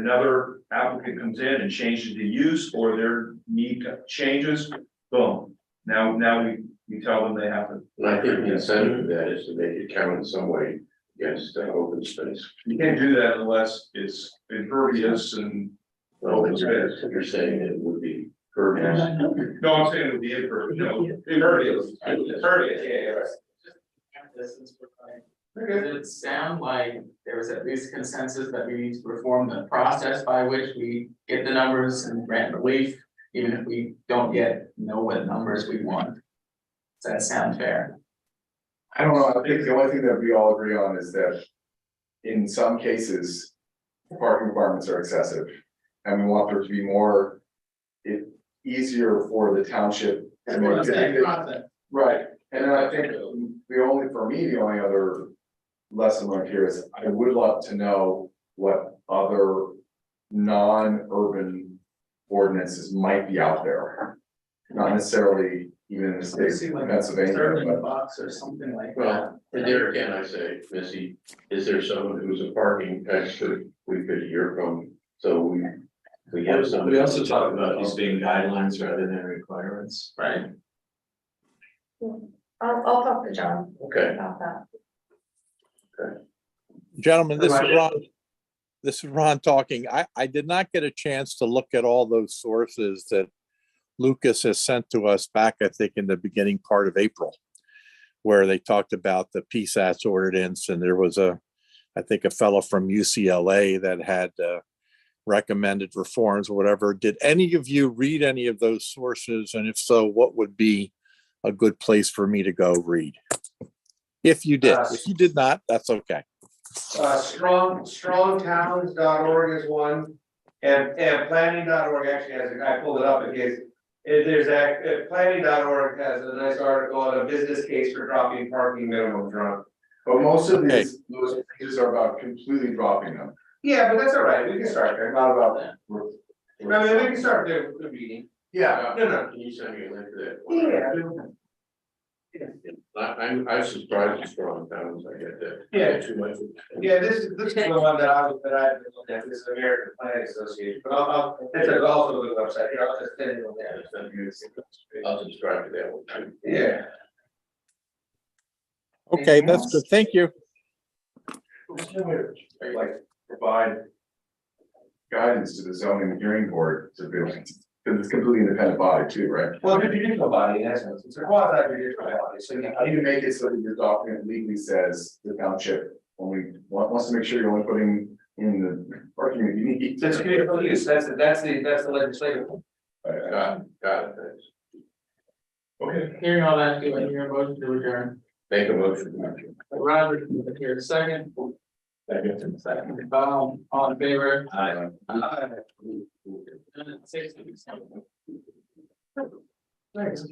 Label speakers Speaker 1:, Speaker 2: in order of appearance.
Speaker 1: another applicant comes in and changes the use or their need changes, boom. Now, now we, we tell them they have to.
Speaker 2: And I think the incentive for that is to make it count in some way against uh, open space.
Speaker 1: You can't do that unless it's impervious and,
Speaker 2: Well, it's- you're saying it would be pervious.
Speaker 1: no, I'm saying it would be impervious, no, impervious, impervious, yeah, yeah.
Speaker 3: Distance required. Does it sound like there was at least consensus that we need to reform the process by which we get the numbers and grant relief? Even if we don't yet know what numbers we want? Does that sound fair?
Speaker 4: I don't know, I think the only thing that we all agree on is that in some cases, parking requirements are excessive. And we want there to be more, it, easier for the township to make. Right, and then I think the only, for me, the only other lesson learned here is I would love to know what other non-urban ordinances might be out there. Not necessarily even in the state of Pennsylvania,
Speaker 3: Sterling
Speaker 4: but.
Speaker 3: box or something like that.
Speaker 2: Well, and there again, I say, Missy, is there someone who's a parking expert we could hear from? So we, we have somebody.
Speaker 5: We also talk about these being guidelines rather than requirements.
Speaker 3: Right,
Speaker 6: I'll, I'll talk to John
Speaker 2: Okay,
Speaker 6: about that.
Speaker 7: Gentlemen, this is
Speaker 3: Right.
Speaker 7: Ron. This is Ron talking. I, I did not get a chance to look at all those sources that Lucas has sent to us back, I think, in the beginning part of April, where they talked about the PSAS ordinance and there was a, I think, a fellow from UCLA that had uh, recommended reforms or whatever. Did any of you read any of those sources? And if so, what would be a good place for me to go read? If you did,
Speaker 8: Uh,
Speaker 7: if you did not, that's okay.
Speaker 8: Uh, strong, strongtowns.org is one, and, and planning.org actually has, a- I pulled it up in case. If there's a, uh, planning.org has a nice article on a business case for dropping parking minimum drunk.
Speaker 4: But most of
Speaker 7: Okay.
Speaker 4: these, those pages are about completely dropping them.
Speaker 8: Yeah, but that's all right, we can start there,
Speaker 4: Not about that.
Speaker 8: I mean, we can start there with the reading.
Speaker 4: Yeah,
Speaker 8: No, no.
Speaker 2: can you send me a link to that?
Speaker 8: Yeah.
Speaker 2: I, I'm, I'm subscribe to strong towns, I get that.
Speaker 8: Yeah.
Speaker 2: Too much.
Speaker 8: Yeah, this is, this is the one that I was, that I, that this is American Planning Association, but I'll, I'll, it's a golf website, here, I'll just send it on there.
Speaker 2: I'll subscribe to that one too.
Speaker 8: Yeah.
Speaker 7: Okay,
Speaker 3: Anything
Speaker 7: that's
Speaker 3: else?
Speaker 7: good. Thank you.
Speaker 4: like provide guidance to the zoning hearing board to be, because it's completely independent body too, right?
Speaker 8: Well, if you did body, in essence, it's a quasi judicial body, so you.
Speaker 4: How do you make it so that your document legally says the township only wa- wants to make sure you're only putting in the parking that you need?
Speaker 8: That's critical use, that's, the- that's the, that's the legislative.
Speaker 4: Uh,
Speaker 2: Got, it, got it, thanks.
Speaker 4: Okay.
Speaker 3: hearing all that, do I hear a motion to adjourn?
Speaker 2: Make a motion.
Speaker 3: Roger, do I hear a second? Second. Second, Bob, all in favor?
Speaker 2: Aye.
Speaker 3: Six. Thanks.